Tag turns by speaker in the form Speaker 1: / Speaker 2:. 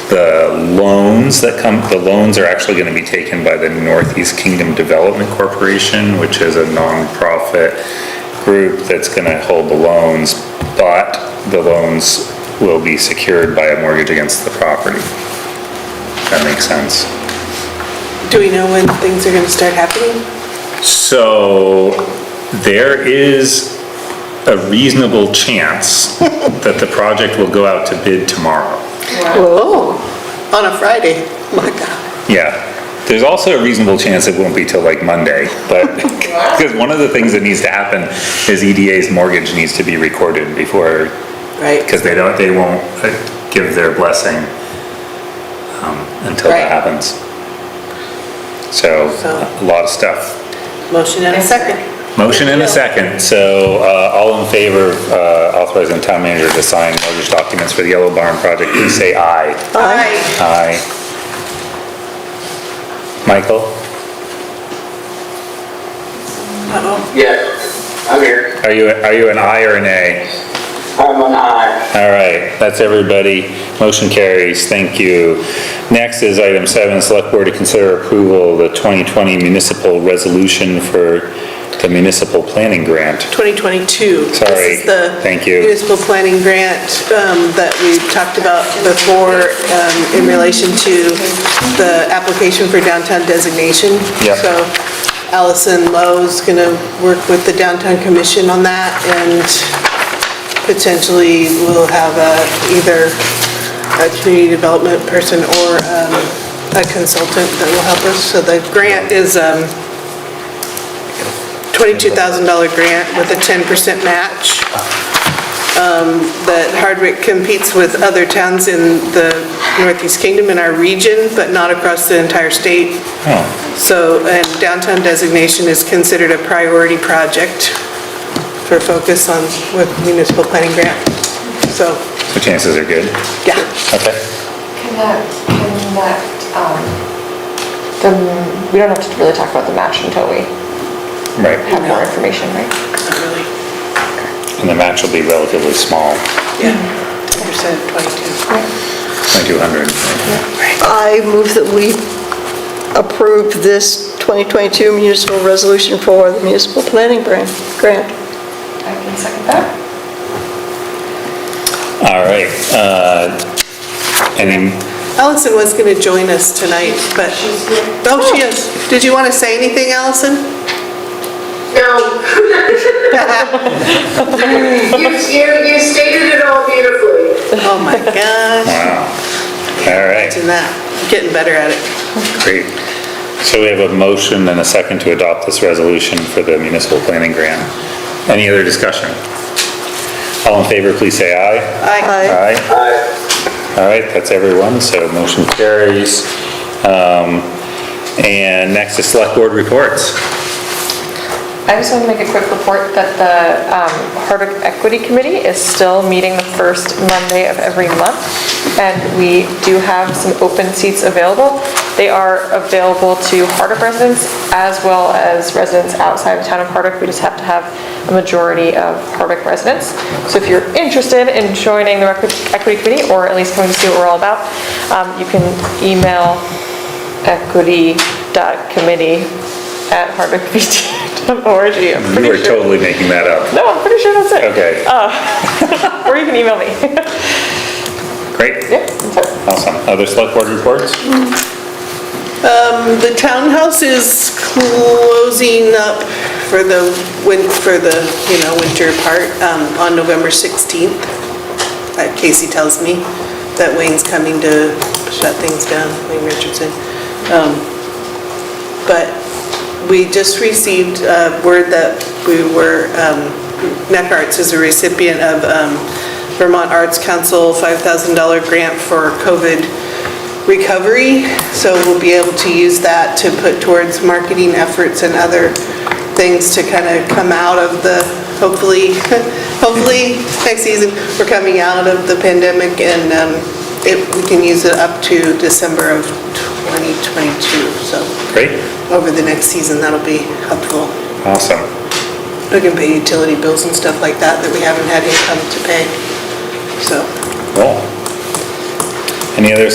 Speaker 1: about loans that come, the loans are actually gonna be taken by the Northeast Kingdom Development Corporation, which is a nonprofit group that's gonna hold the loans, but the loans will be secured by a mortgage against the property. That makes sense.
Speaker 2: Do we know when things are gonna start happening?
Speaker 1: So there is a reasonable chance that the project will go out to bid tomorrow.
Speaker 2: Whoa, on a Friday, my God.
Speaker 1: Yeah. There's also a reasonable chance it won't be till like Monday, but, because one of the things that needs to happen is EDA's mortgage needs to be recorded before,
Speaker 2: Right,
Speaker 1: because they don't, they won't uh, give their blessing um, until
Speaker 2: Right.
Speaker 1: that happens. So,
Speaker 2: So-
Speaker 1: a lot of stuff.
Speaker 2: motion and a second.
Speaker 1: Motion and a second, so uh, all in favor of uh, authorizing town manager to sign mortgage documents for the Yellow Barn project, please say aye.
Speaker 2: Aye.
Speaker 1: Aye. Michael,
Speaker 2: Uh-oh,
Speaker 3: Yeah, I'm here.
Speaker 1: are you, are you an aye or an A?
Speaker 3: I'm on aye.
Speaker 1: All right, that's everybody. Motion carries, thank you. Next is item seven, select board to consider approval of the 2020 municipal resolution for the municipal planning grant.
Speaker 2: 2022.
Speaker 1: Sorry.
Speaker 2: This is the
Speaker 1: Thank you.
Speaker 2: Municipal planning grant um, that we talked about before um, in relation to the application for downtown designation.
Speaker 1: Yep.
Speaker 2: So Allison Lowe's gonna work with the downtown commission on that and potentially we'll have a, either a community development person or um, a consultant that will help us. So the grant is, um, $22,000 grant with a 10% match. um, That Hardwick competes with other towns in the Northeast Kingdom in our region, but not across the entire state.
Speaker 1: Oh,
Speaker 2: So, and downtown designation is considered a priority project for focus on with municipal planning grant. So,
Speaker 1: so chances are good.
Speaker 2: yeah,
Speaker 1: Okay.
Speaker 4: Can that, can that, um, the, we don't have to really talk about the match until we
Speaker 1: Right,
Speaker 4: have more information, right?
Speaker 2: not really,
Speaker 1: and the match will be relatively small,
Speaker 2: yeah, 10%, 22.
Speaker 1: 2,200.
Speaker 5: I move that we approve this 2022 municipal resolution for the municipal planning grant. grant.
Speaker 4: I can second that.
Speaker 1: All right, uh, any,
Speaker 2: Allison was going to join us tonight, but, oh, she is. Did you want to say anything, Allison?
Speaker 6: No, you, you, you stated it all beautifully.
Speaker 2: Oh my gosh,
Speaker 1: wow, all right,
Speaker 2: imagine that, I'm getting better at it.
Speaker 1: great. So we have a motion and a second to adopt this resolution for the municipal planning grant. Any other discussion? All in favor, please say aye.
Speaker 2: I,
Speaker 1: Aye.
Speaker 3: Aye.
Speaker 1: All right, that's everyone, so motion carries. Um, And next is select board reports.
Speaker 4: I just want to make a quick report that the um, Hardwick Equity Committee is still meeting the first Monday of every month, and we do have some open seats available. They are available to Hardwick residents as well as residents outside the town of Hardwick. We just have to have a majority of Hardwick residents. So if you're interested in joining the Equi- Equity Committee, or at least coming to see what we're all about, um, you can email equity.committee@hardwickvt.org. I'm
Speaker 1: You are
Speaker 4: pretty sure. Oh.
Speaker 1: totally making that up.
Speaker 4: No, I'm pretty sure that's it.
Speaker 1: Okay,
Speaker 4: Or you can email me.
Speaker 1: great,
Speaker 4: Yep, that's it.
Speaker 1: awesome. Other select board reports?
Speaker 2: um, the townhouse is closing up for the, win- for the, you know, winter part, um, on November 16th. Uh, Casey tells me that Wayne's coming to shut things down, Wayne Richardson. Um, But we just received uh, word that we were, um, Net Arts is a recipient of um, Vermont Arts Council $5,000 grant for COVID recovery, so we'll be able to use that to put towards marketing efforts and other things to kind of come out of the, hopefully, hopefully, next season, we're coming out of the pandemic and um, it- we can use it up to December of 2022, so
Speaker 1: Great.
Speaker 2: over the next season, that'll be helpful.
Speaker 1: Awesome.
Speaker 2: We can pay utility bills and stuff like that that we haven't had income to pay, so.
Speaker 1: Cool. Any other